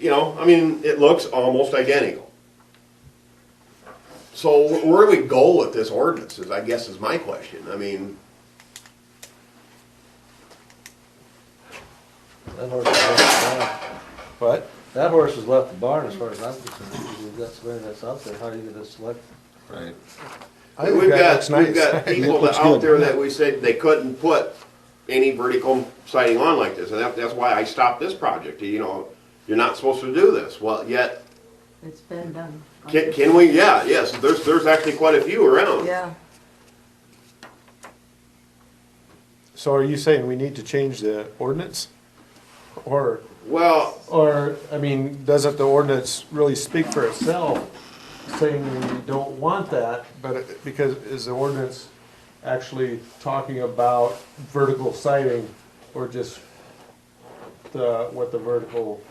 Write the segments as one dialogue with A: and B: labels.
A: You know, I mean, it looks almost identical. So wh- where do we go with this ordinance is, I guess, is my question. I mean,
B: That horse was left at the barn.
C: What?
B: That horse was left the barn as far as I'm concerned. If that's where that's out there, how are you gonna select?
C: Right. I think
A: we've
C: that
A: got,
C: looks
A: we've
C: nice.
A: got
C: It
A: people that
C: looks
A: out
C: good.
A: there that we said they couldn't put any vertical siding on like this, and that, that's why I stopped this project, you know, you're not supposed to do this, well, yet,
D: It's been done.
A: can, can we, yeah, yes, there's, there's actually quite a few around.
D: Yeah,
C: So are you saying we need to change the ordinance? Or,
A: Well,
C: or, I mean, doesn't the ordinance really speak for itself, saying we don't want that? But it- because, is the ordinance actually talking about vertical siding or just the, what the vertical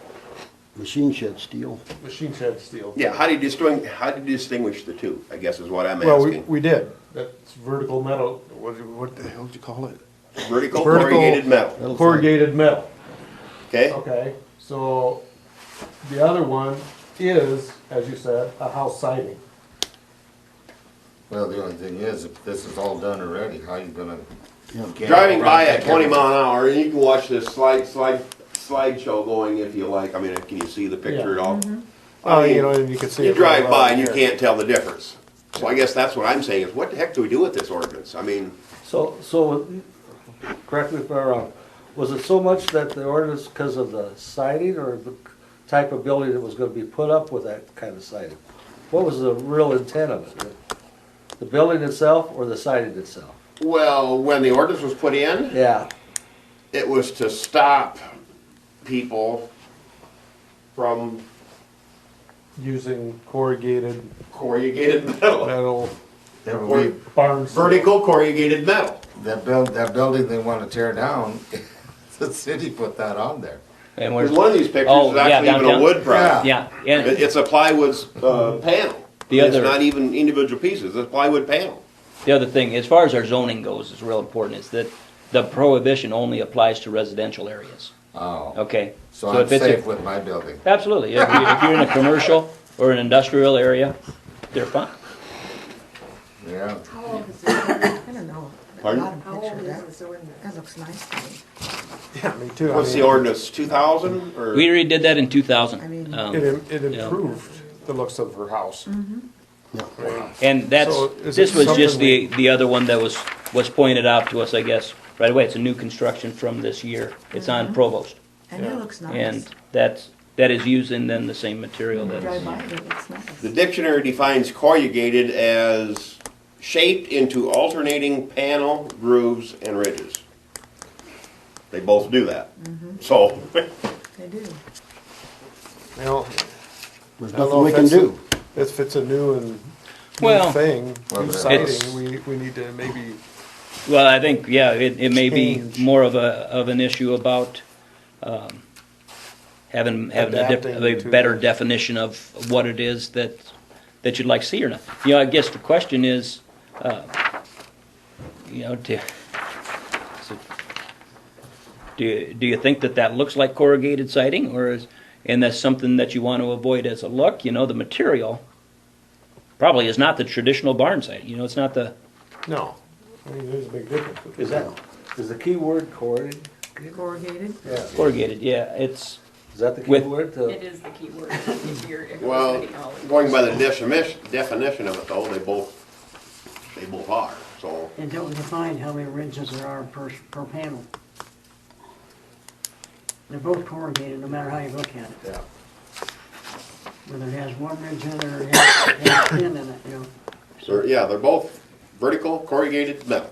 E: machine shed steel.
C: machine shed steel?
A: yeah, how do you distinguish, how do you distinguish the two, I guess is what I'm
C: Well, we,
A: asking.
C: we did. That's vertical metal, what, what the hell did you call it?
A: Vertical
C: vertical-
A: corrugated metal,
C: Corrugated metal.
A: okay?
C: Okay, so the other one is, as you said, a house siding.
F: Well, the only thing is, if this is all done already, how you gonna? you can't
A: Driving by
F: run
A: at twenty
F: back
A: mile an hour, you can watch this slide, slide, slideshow going if you like, I mean, can you see the picture at all?
C: Oh,
A: I mean,
C: you know, and you can see.
A: You
C: it right
A: drive by and you
C: here.
A: can't tell the difference. So I guess that's what I'm saying is what the heck do we do with this ordinance? I mean,
B: So, so, correct me if I'm wrong, was it so much that the ordinance, because of the siding or the type of building that was gonna be put up with that kind of siding? What was the real intent of it? The building itself or the siding itself?
A: well, when the ordinance was put in,
B: Yeah,
A: it was to stop people from
C: Using corrugated
A: corrugated metal,
C: metal
F: That
A: Or
F: we,
C: barn. siding.
A: vertical corrugated metal.
F: that build, that building they wanna tear down, the city put that on there.
G: And
A: Because
G: we're,
A: one of these pictures
G: Oh,
A: is
G: yeah,
A: actually even a
G: downtown.
A: wood product.
G: yeah,
A: It-
G: and
A: It's a plywood uh, panel.
G: The
A: It's
G: other-
A: not even individual pieces, it's plywood panel.
G: the other thing, as far as our zoning goes, is real important, is that the prohibition only applies to residential areas,
F: Oh,
G: okay?
F: so I'm
G: if it's a-
F: safe with my building.
G: Absolutely, if you- if you're in a commercial or an industrial area, they're fine.
F: Yeah,
D: how old is this? I don't know.
A: Pardon?
D: Got a picture of that. That looks nice to me.
C: Yeah, me too. I
A: What's the
C: mean,
A: ordinance, two thousand or?
G: We already did that in two
D: I
G: thousand,
D: mean-
C: It,
G: um,
C: im- it improved the looks of her house.
G: and that's,
C: So is
G: this
C: it
G: was just
C: something
G: the, the other one that was, was pointed out to us, I guess, right away, it's a new construction from this year, it's on Provost,
D: And it looks Mm-hmm. nice.
G: and that's, that is using then the same material that
D: Drive
G: is.
D: by it, it looks nice.
A: The dictionary defines corrugated as shaped into alternating panel grooves and ridges. They both do that. So,
D: They do.
C: You know,
E: There's
C: I don't
E: nothing
C: know
E: we
C: if
E: can
C: that's-
E: do.
C: If it's a new and, new
G: Well,
C: thing,
F: Well,
C: new
F: it's-
C: siding, we, we need to maybe,
G: Well, I think, yeah, it, it may be
C: Change.
G: more of a, of an issue about, um, having, having a dif-
C: Adapting
G: a
C: to
G: better
C: the-
G: definition of what it is that, that you'd like to see or not. You know, I guess the question is, uh, you know, do, so, do, do you think that that looks like corrugated siding or is, and that's something that you want to avoid as a look, you know, the material probably is not the traditional barn siding, you know, it's not the,
C: no. I mean, there's a big difference.
B: is that, is the key word corrugated?
D: Corrugated.
B: Yeah,
G: corrugated, yeah, it's,
B: is that the key
G: With-
B: word? The-
H: It is the key word if you're, if you're
A: well,
H: spending all of
A: going by the definition, definition of it though, they both, they both are, so.
I: It don't define how many ridges there are per, per panel. They're both corrugated, no matter how you look at it,
B: Yeah.
I: whether it has one ridge in it or it has it has ten in it, you know.
A: So, yeah, they're both vertical corrugated metal.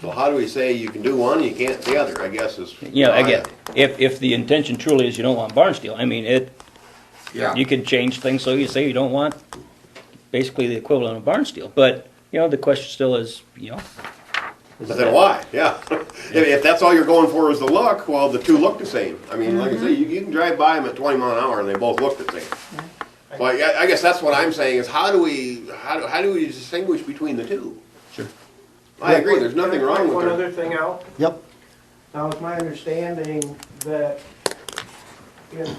A: So how do we say you can do one, you can't the other, I guess is.
G: You know, again, if, if the intention truly is you don't want barn steel, I mean, it,
F: yeah.
G: you can change things, so you say you don't want basically the equivalent of barn steel, but, you know, the question still is, you know,
A: But Then why? Yeah. If, if that's all you're going for is the look, well, the two look the same. I mean, like I say, you, you can drive by them at twenty mile an hour and they both look the same. So I, I guess that's what I'm saying is how do we, how do, how do we distinguish between the two?
G: Sure.
A: I agree, there's nothing
J: Can I
A: wrong
J: point
A: with
J: One
A: it.
J: other thing out,
E: Yep,
J: now it's my understanding that
I: if